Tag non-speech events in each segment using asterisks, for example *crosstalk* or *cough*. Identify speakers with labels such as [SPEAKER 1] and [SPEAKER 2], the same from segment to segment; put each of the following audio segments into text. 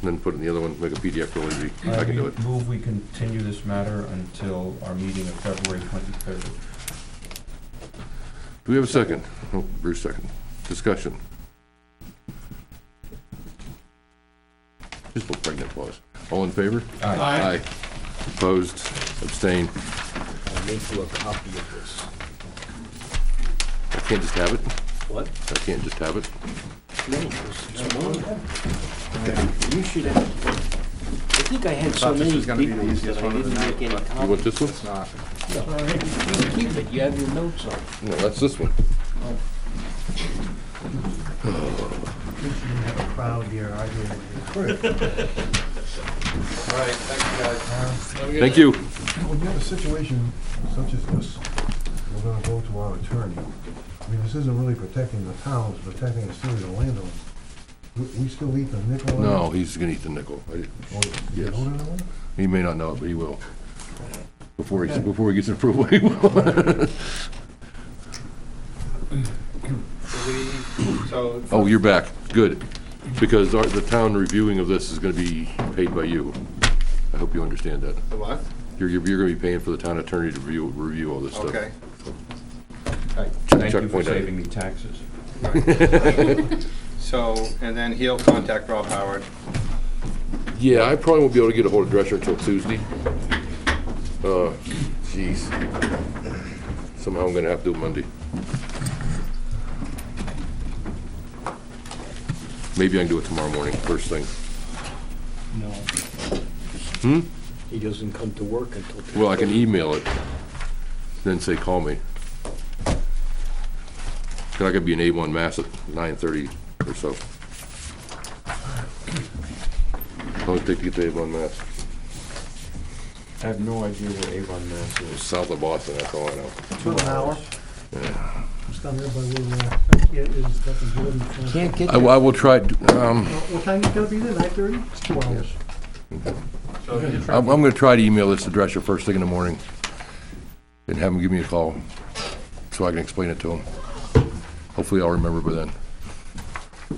[SPEAKER 1] and then put it in the other one, make a PDF real easy. I can do it.
[SPEAKER 2] I move Uh, we continue this matter until our meeting of February twenty-third.
[SPEAKER 1] Do we have a second? Oh, Bruce second. Discussion. Just a little pregnant pause. All in favor? Aye. Opposed, abstained.
[SPEAKER 3] I'll make you a copy of this.
[SPEAKER 1] I can't just have it?
[SPEAKER 3] What?
[SPEAKER 1] I can't just have it?
[SPEAKER 3] No, it's it's one. You should have, I think I had so
[SPEAKER 4] Thought this
[SPEAKER 3] many
[SPEAKER 4] was
[SPEAKER 3] big
[SPEAKER 4] gonna be the
[SPEAKER 3] ones
[SPEAKER 4] easiest
[SPEAKER 3] that I
[SPEAKER 4] one of the
[SPEAKER 3] didn't
[SPEAKER 4] night,
[SPEAKER 3] make any
[SPEAKER 1] You want
[SPEAKER 3] copies.
[SPEAKER 1] this one?
[SPEAKER 4] Not.
[SPEAKER 3] You Keep it, you have your notes on. it.
[SPEAKER 1] No, that's this one.
[SPEAKER 5] crowd here arguing with you. *laughs*
[SPEAKER 4] *laughs* All right, thanks, guys.
[SPEAKER 1] Thank you.
[SPEAKER 6] When you Uh, have a situation such as this, we're gonna go to our attorney. I mean, this isn't really protecting the town, it's protecting a series of landowners. We, we still eat the nickel?
[SPEAKER 1] No, he's gonna eat the nickel. I-
[SPEAKER 6] Or- Oh, you
[SPEAKER 1] Yes.
[SPEAKER 6] know that one?
[SPEAKER 1] He may not know it, but he will. Before he, before he gets approval, *laughs* he will.
[SPEAKER 4] So,
[SPEAKER 1] Oh, you're back. Good. Because our, the town reviewing of this is gonna be paid by you. I hope you understand that.
[SPEAKER 4] the what?
[SPEAKER 1] You're, you're gonna be paying for the town attorney to review, review all this stuff.
[SPEAKER 4] Okay.
[SPEAKER 2] Thank
[SPEAKER 1] Chuck
[SPEAKER 2] you for
[SPEAKER 1] pointed at it.
[SPEAKER 2] saving me taxes.
[SPEAKER 4] So, and then he'll contact Rob Howard.
[SPEAKER 1] *laughs* Yeah, I probably won't be able to get a hold of Drescher until Tuesday. Uh, jeez. Somehow I'm gonna have to do it Monday. Maybe I can do it tomorrow morning, first thing.
[SPEAKER 3] No.
[SPEAKER 1] Hmm?
[SPEAKER 3] He doesn't come to work until.
[SPEAKER 1] Well, I can email it, then say, call me. 'Cause I could be in A1 Mass at 9:30 or so. How long does it take to get to A1 Mass?
[SPEAKER 2] I have no idea where Avon, Mass is.
[SPEAKER 1] South of Boston, that's all I know.
[SPEAKER 5] About an hour. Just down there by where, uh, yeah, it's got the Jordan. front.
[SPEAKER 3] Can't get
[SPEAKER 1] I
[SPEAKER 3] there.
[SPEAKER 1] will- I will try, to- um,
[SPEAKER 5] Well, What time you gonna be there, nine thirty? It's two hours.
[SPEAKER 4] So he's trying
[SPEAKER 1] I'm, I'm gonna try to email this to Drescher first thing in the morning and have him give me a call so I can explain it to him. Hopefully I'll remember by then.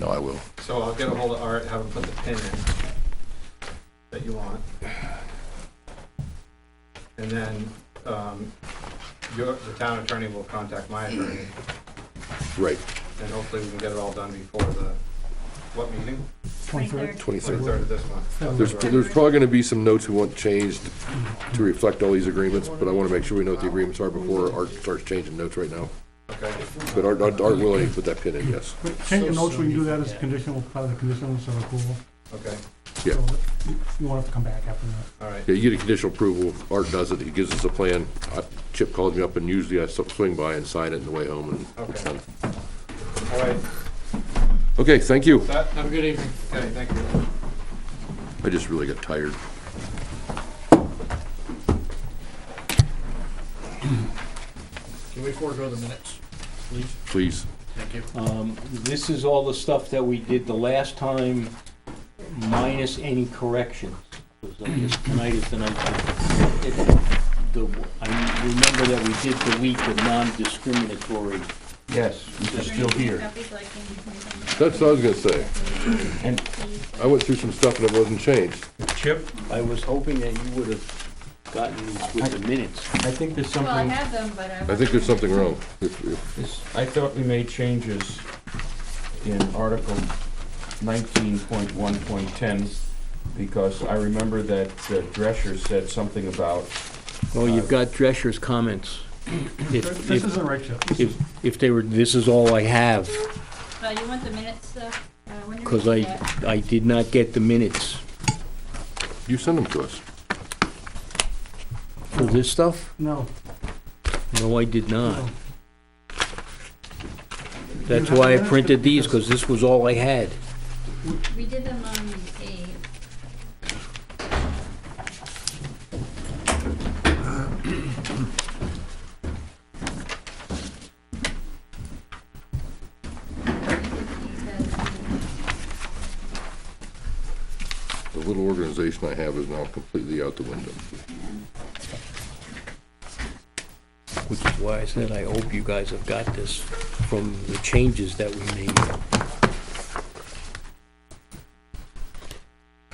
[SPEAKER 1] No, I will.
[SPEAKER 4] So I'll get a hold of Art, have him put the pin in that you want. And then, um, your, the town attorney will contact my attorney,
[SPEAKER 1] Right,
[SPEAKER 4] and hopefully we can get it all done before the, what meeting?
[SPEAKER 1] 23rd.
[SPEAKER 5] Twenty-third.
[SPEAKER 4] Twenty-third of this month.
[SPEAKER 1] There's, there's probably gonna be some notes we want changed to reflect all these agreements, but I wanna make sure we know what the agreements are before Art starts changing notes right now.
[SPEAKER 4] Okay,
[SPEAKER 1] But Art, Art Art will put that pin in, yes.
[SPEAKER 5] But Change the notes, we can do that as a conditional, part of the conditionals of approval.
[SPEAKER 4] okay,
[SPEAKER 1] Yeah.
[SPEAKER 5] So you- You won't have to come back after that.
[SPEAKER 4] all right.
[SPEAKER 1] Yeah, you get a conditional approval, Art does it, he gives us a plan. I- Chip calls me up and usually I swing by and sign it on the way home and it's
[SPEAKER 4] Okay.
[SPEAKER 1] done.
[SPEAKER 4] All right,
[SPEAKER 1] Okay, thank you.
[SPEAKER 4] that, have a good evening. Okay, thank you.
[SPEAKER 1] I just really got tired.
[SPEAKER 3] Can we forego the minutes, please?
[SPEAKER 1] Please.
[SPEAKER 3] Thank you. Um, this is all the stuff that we did the last time, minus any corrections. 'Cause I guess Tonight is the night. that- it- the- I remember that we did the week of non-discriminatory
[SPEAKER 2] Yes,
[SPEAKER 3] They're still here.
[SPEAKER 1] That's what I was gonna say.
[SPEAKER 3] And-
[SPEAKER 1] I went through some stuff that wasn't changed.
[SPEAKER 2] Chip,
[SPEAKER 3] I was hoping that you would have gotten these with the minutes.
[SPEAKER 2] I think there's
[SPEAKER 7] Well, I
[SPEAKER 2] something,
[SPEAKER 7] have them, but I.
[SPEAKER 1] I think there's something wrong. If- if-
[SPEAKER 2] this- I thought we made changes in Article nineteen point one point ten, because I remember that uh, Drescher said something about,
[SPEAKER 3] Oh, you've got Drescher's comments. If-
[SPEAKER 5] This isn't right, Chip. This
[SPEAKER 3] If, if they were, this is all I have,
[SPEAKER 7] Uh, you want the minutes, uh, uh, when you're.
[SPEAKER 3] because
[SPEAKER 7] ready
[SPEAKER 3] I,
[SPEAKER 7] to-
[SPEAKER 3] I did not get the minutes
[SPEAKER 1] You send them to us.
[SPEAKER 3] for this stuff.
[SPEAKER 5] No.
[SPEAKER 3] No, I did
[SPEAKER 5] No.
[SPEAKER 3] not.
[SPEAKER 5] You have
[SPEAKER 3] That's
[SPEAKER 5] the
[SPEAKER 3] why I
[SPEAKER 5] minutes,
[SPEAKER 3] printed
[SPEAKER 5] but-
[SPEAKER 3] these, because this was all I had.
[SPEAKER 7] We did them on the eighth.
[SPEAKER 1] The little organization I have is now completely out the window.
[SPEAKER 3] Which is why I said I hope you guys have got this from the changes that we made.